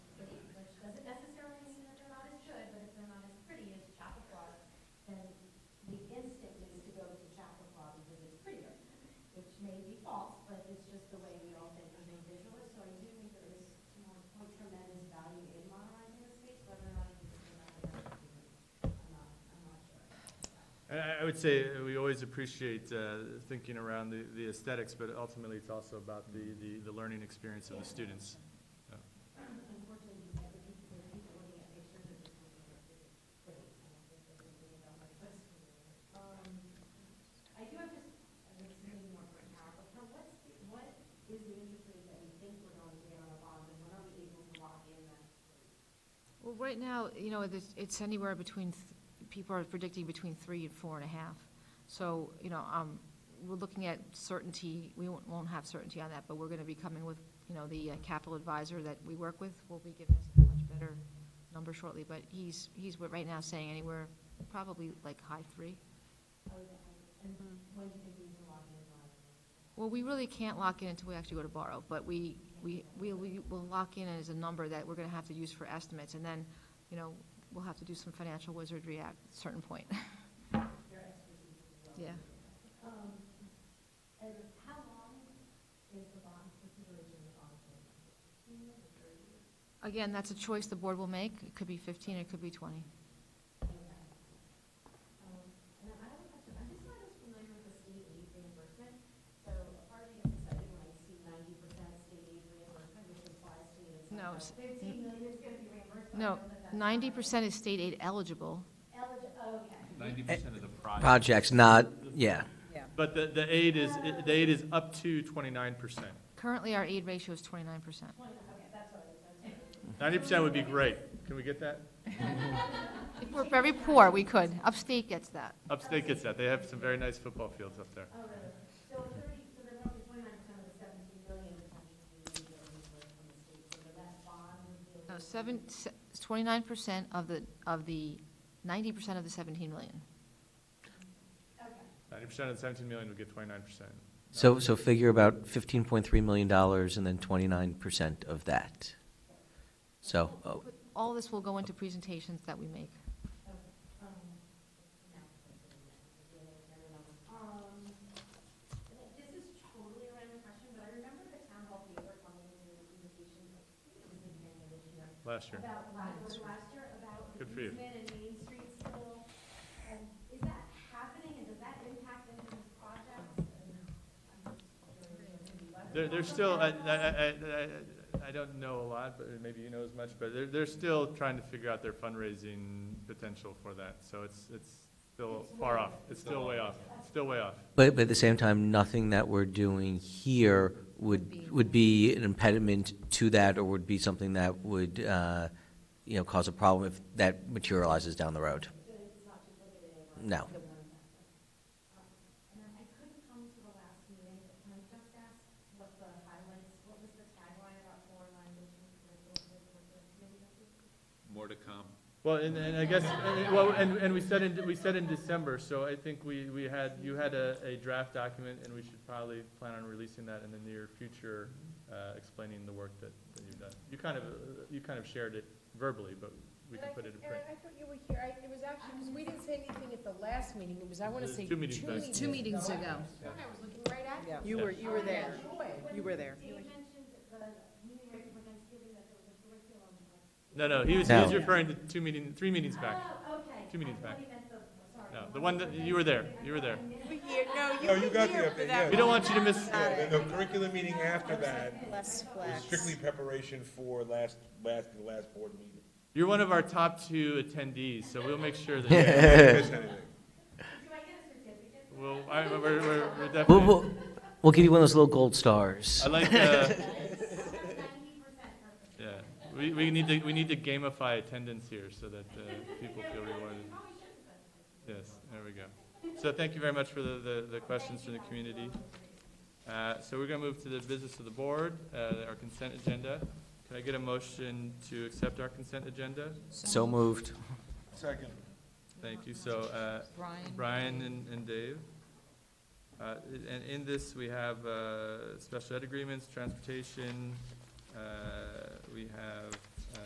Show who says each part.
Speaker 1: I would say we always appreciate uh, thinking around the the aesthetics, but ultimately it's also about the, the, the learning experience of the students. Yeah.
Speaker 2: I do have just, I mean, it's maybe more for Carol, but Carol, what's, the- what is the interest rate that we think we're going to get on the bonds, and when are we able to lock in that?
Speaker 3: Well, right now, you know, it's, it's anywhere between, th- people are predicting between three and four and a half. So, you know, um, we're looking at certainty, we won't, won't have certainty on that, but we're gonna be coming with, you know, the uh, capital advisor that we work with will be giving us a much better number shortly, but he's, he's what- right now saying anywhere, probably like high three.
Speaker 2: When do you think we can lock in on?
Speaker 3: Well, we really can't lock in until we actually go to borrow, but we, we, we we will lock in as a number that we're gonna have to use for estimates, and then, you know, we'll have to do some financial wizardry at a certain point. Yeah.
Speaker 2: And how long is the bond, consideration of the bond? payment?
Speaker 3: Again, that's a choice the board will make. It could be fifteen, it could be twenty.
Speaker 2: Okay. Um, And then I have a question, I'm just not as familiar with the state aid reimbursement, so a part of me is excited when I see ninety percent state aid reimbursement, which implies to me it's
Speaker 3: No,
Speaker 2: like
Speaker 3: s-
Speaker 2: fifteen million is gonna be reimbursed. but I know
Speaker 3: No,
Speaker 2: that that's not
Speaker 3: ninety percent is state aid eligible.
Speaker 2: Eligible, Oh, okay.
Speaker 4: Ninety percent of the project.
Speaker 5: Projects, not, yeah.
Speaker 1: But the, the aid is, the aid is up to twenty-nine percent.
Speaker 3: Currently, our aid ratio is twenty-nine percent.
Speaker 1: Ninety percent would be great. Can we get that?
Speaker 3: If we're very poor, we could. Upstate gets that.
Speaker 1: Upstate gets that. They have some very nice football fields up there.
Speaker 2: Oh, really? So thirty, so then roughly twenty-nine percent of the seventeen million potentially would be reimbursed from the state, so the less bond would be.
Speaker 3: No, seven, twenty-nine percent of the, of the, ninety percent of the seventeen million.
Speaker 2: Okay,
Speaker 1: Ninety percent of the seventeen million would get twenty-nine percent.
Speaker 5: So, so figure about fifteen point three million dollars and then twenty-nine percent of that. So, oh,
Speaker 3: But All this will go into presentations that we make.
Speaker 2: um, and then this is totally a random question, but I remember the town hall paper coming into the presentation, I think it was in May of this year,
Speaker 1: Last year.
Speaker 2: about, la- was it last year, about the
Speaker 1: Mm. Good for you.
Speaker 2: easement and Main Street still. And is that happening, and does that impact any of these projects? And I'm just wondering if maybe what-
Speaker 1: There, there's still, I, I, I, I- I don't know a lot, but maybe you know as much, but they're, they're still trying to figure out their fundraising potential for that. So it's, it's still far off. It's still way off. It's Still way off.
Speaker 5: but, but at the same time, nothing that we're doing here would, would be an impediment to that or would be something that would, uh, you know, cause a problem if that materializes down the road. No.
Speaker 2: And then I couldn't come to the last meeting, but can I just ask what the highlights, what was the tagline about foreign language and curriculum for the committee?
Speaker 4: More to come.
Speaker 1: Well, and, and I guess, and- well, and, and we said in, we said in December, so I think we, we had, you had a, a draft document, and we should probably plan on releasing that in the near future, uh, explaining the work that, that you've done. You kind of, uh, you kind of shared it verbally, but we can put it in
Speaker 6: And
Speaker 1: print.
Speaker 6: I- I thought you were here, I, it was actually, because we didn't say anything at the last meeting, it was, I want to
Speaker 1: It was
Speaker 6: say.
Speaker 1: two meetings back. Two
Speaker 3: meetings
Speaker 6: I-
Speaker 3: ago.
Speaker 6: I thought I was looking right at you.
Speaker 7: You were, you were there. You were there.
Speaker 2: Dave mentioned at the meeting right before Thanksgiving that there was a curriculum.
Speaker 1: No, no, he was, he was
Speaker 5: No.
Speaker 1: referring to two meeting, three meetings back.
Speaker 2: Oh, okay.
Speaker 1: Two meetings
Speaker 2: I thought
Speaker 1: back.
Speaker 2: he meant the- sorry.
Speaker 1: No, the one that, you were there, you were there.
Speaker 7: No, you got the update, yeah.
Speaker 1: We don't want you to miss,
Speaker 7: Got
Speaker 8: The curriculum meeting after that
Speaker 7: Less
Speaker 8: was
Speaker 7: flax.
Speaker 8: strictly preparation for last, last, the last board meeting.
Speaker 1: you're one of our top two attendees, so we'll make sure that,
Speaker 8: Didn't miss anything.
Speaker 2: Do I get a certificate?
Speaker 1: we'll, I, we're, we're- we're
Speaker 5: We'll,
Speaker 1: definitely,
Speaker 5: we'll, we'll give you one of those little gold stars.
Speaker 1: I like, uh,
Speaker 2: Ninety percent perfect.
Speaker 1: Yeah, we, we need to, we need to gamify attendance here so that uh, people feel rewarded. Yes, there we go. So thank you very much for the, the, the questions from the community. Uh, so we're gonna move to the business of the board, uh, our consent agenda. Can I get a motion to accept our consent agenda?
Speaker 5: So moved.
Speaker 8: Second.
Speaker 1: Thank you, so, uh,
Speaker 3: Brian?
Speaker 1: Brian and, and Dave. Uh, and in this, we have, uh, special ed agreements, transportation, uh, we have